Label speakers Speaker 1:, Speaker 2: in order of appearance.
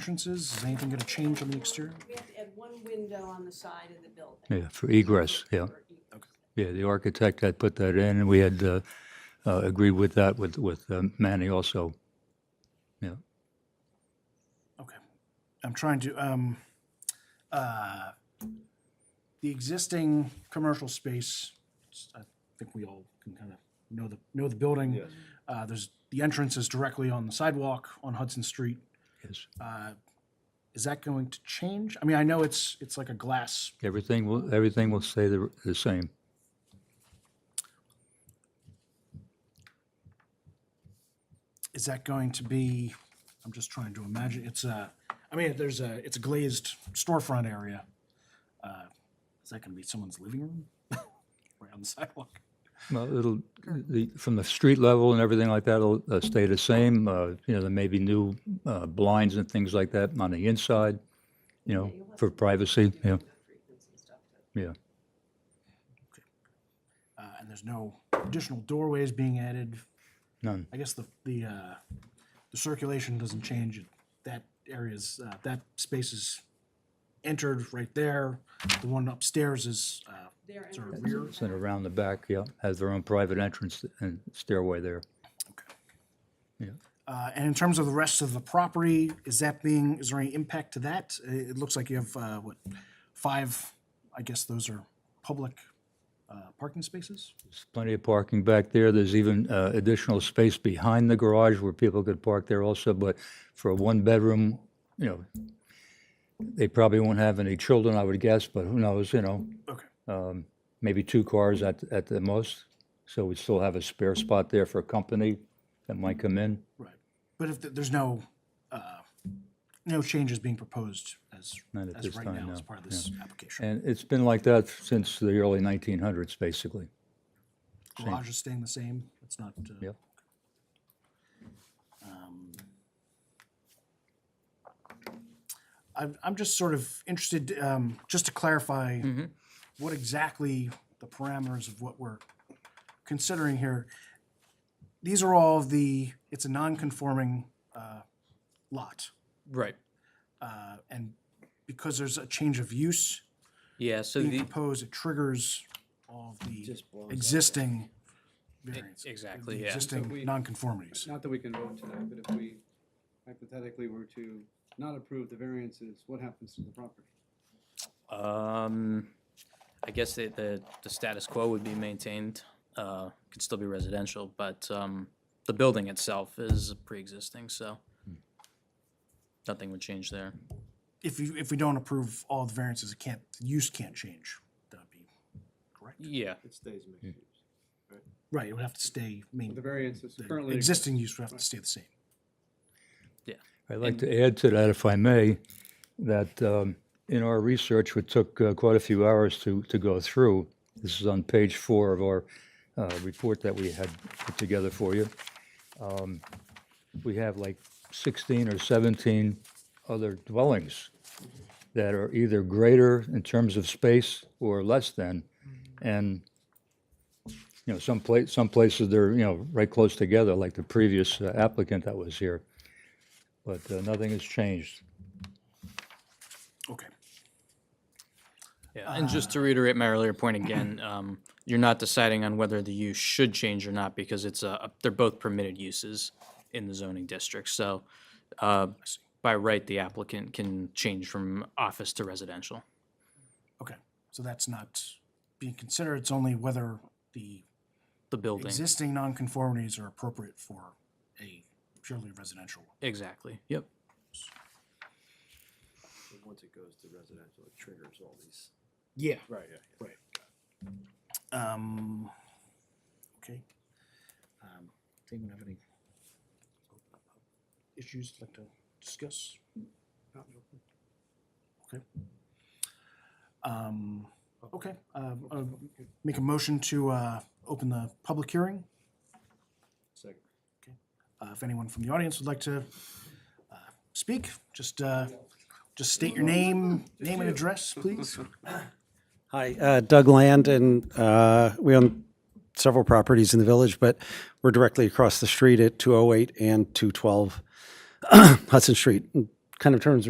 Speaker 1: entrances? Is anything going to change on the exterior?
Speaker 2: We have to add one window on the side of the building. e-
Speaker 3: Yeah, for egress, yeah. Yeah, the architect had put that in, and we had uh, uh, agreed with that with, with um, Manny also. Yeah,
Speaker 1: Okay. I'm trying to, um, uh, the existing commercial space, it's- I think we all can kind of know the, know the building. Uh, there's, the entrance is directly on the sidewalk on Hudson Street.
Speaker 3: yes.
Speaker 1: Uh, Is that going to change? I mean, I know it's, it's like a glass.
Speaker 3: Everything will, everything will stay the, the same.
Speaker 1: Is that going to be, I'm just trying to imagine, it's a, I mean, there's a, it's a glazed storefront area. Uh, Is that going to be someone's living room? Right on the sidewalk?
Speaker 3: Well, it'll, the, from the street level and everything like that, it'll uh, stay the same. Uh, You know, there may be new uh, blinds and things like that on the inside, you know, for privacy, yeah, yeah.
Speaker 1: Uh, And there's no additional doorways being added.
Speaker 3: None.
Speaker 1: I guess the, the, uh, the circulation doesn't change. That area's, uh, that space is entered right there. The one upstairs is, uh,
Speaker 2: Their
Speaker 1: sort of
Speaker 2: entrance,
Speaker 1: rear.
Speaker 3: And around the back, yeah, has their own private entrance and stairway there.
Speaker 1: Uh, And in terms of the rest of the property, is that being, is there any impact to that? I- It looks like you have, uh, what, five, I guess those are public uh, parking spaces?
Speaker 3: There's plenty of parking back there. There's even uh, additional space behind the garage where people could park there also, but for a one-bedroom, you know, they probably won't have any children, I would guess, but who knows, you know?
Speaker 1: Okay.
Speaker 3: Um, Maybe two cars at, at the most, so we still have a spare spot there for a company that might come in.
Speaker 1: Right. But if, th- there's no, uh, no changes being proposed as,
Speaker 3: Not at
Speaker 1: as
Speaker 3: this
Speaker 1: right
Speaker 3: time,
Speaker 1: now
Speaker 3: no.
Speaker 1: as part of this application?
Speaker 3: And it's been like that since the early 1900s, basically.
Speaker 1: Garage is staying the same? It's not? uh,
Speaker 3: Yep.
Speaker 1: um, I'm, I'm just sort of interested, um, just to clarify, what exactly the parameters of what we're considering here. These are all the, it's a non-conforming uh, lot.
Speaker 4: Right.
Speaker 1: uh, And because there's a change of use
Speaker 4: Yeah, so
Speaker 1: being
Speaker 4: the,
Speaker 1: proposed, it triggers all of the
Speaker 5: blows up.
Speaker 1: existing variants. the
Speaker 4: e, exactly, yeah.
Speaker 5: So
Speaker 1: Existing
Speaker 5: we-
Speaker 1: nonconformities.
Speaker 5: Not that we can vote tonight, but if we hypothetically were to not approve the variances, what happens to the property?
Speaker 4: um, I guess the, the, the status quo would be maintained, uh, could still be residential, but, um, the building itself is pre-existing, so nothing would change there.
Speaker 1: If you, if we don't approve all the variances, it can't, the use can't change. That would be correct.
Speaker 4: Yeah,
Speaker 5: It stays mixed use.
Speaker 1: Right, it would have to stay, I
Speaker 5: The
Speaker 1: mean,
Speaker 5: variances
Speaker 1: the
Speaker 5: currently.
Speaker 1: existing use would have to stay the same.
Speaker 3: I'd like to add to that, if I may, that um, in our research, which took uh, quite a few hours to, to go through, this is on page four of our uh, report that we had put together for you. Um, We have like 16 or 17 other dwellings that are either greater in terms of space or less than. And, you know, some place, some places they're, you know, right close together, like the previous uh, applicant that was here but uh, nothing has changed.
Speaker 1: Okay.
Speaker 4: yeah. And just to reiterate my earlier point again, um, you're not deciding on whether the use should change or not because it's a, they're both permitted uses in the zoning district, so, uh, by right, the applicant can change from office to residential.
Speaker 1: Okay, so that's not being considered, it's only whether the
Speaker 4: The building,
Speaker 1: existing nonconformities are appropriate for a purely residential.
Speaker 4: exactly, yep.
Speaker 5: Once it goes to residential, it triggers all these.
Speaker 1: Yeah.
Speaker 5: Right, yeah.
Speaker 1: Um, okay. Um, does anyone have any issues you'd like to discuss? Okay. Um, okay, uh, uh, make a motion to, uh, open the public hearing.
Speaker 5: Second.
Speaker 1: Uh, if anyone from the audience would like to, uh, speak, just, uh, just state your name, name and address, please.
Speaker 6: Hi, uh, Doug Land, and uh, we own several properties in the village, but oh we're directly across the street at 208 and 212 Hudson Street. kind of turns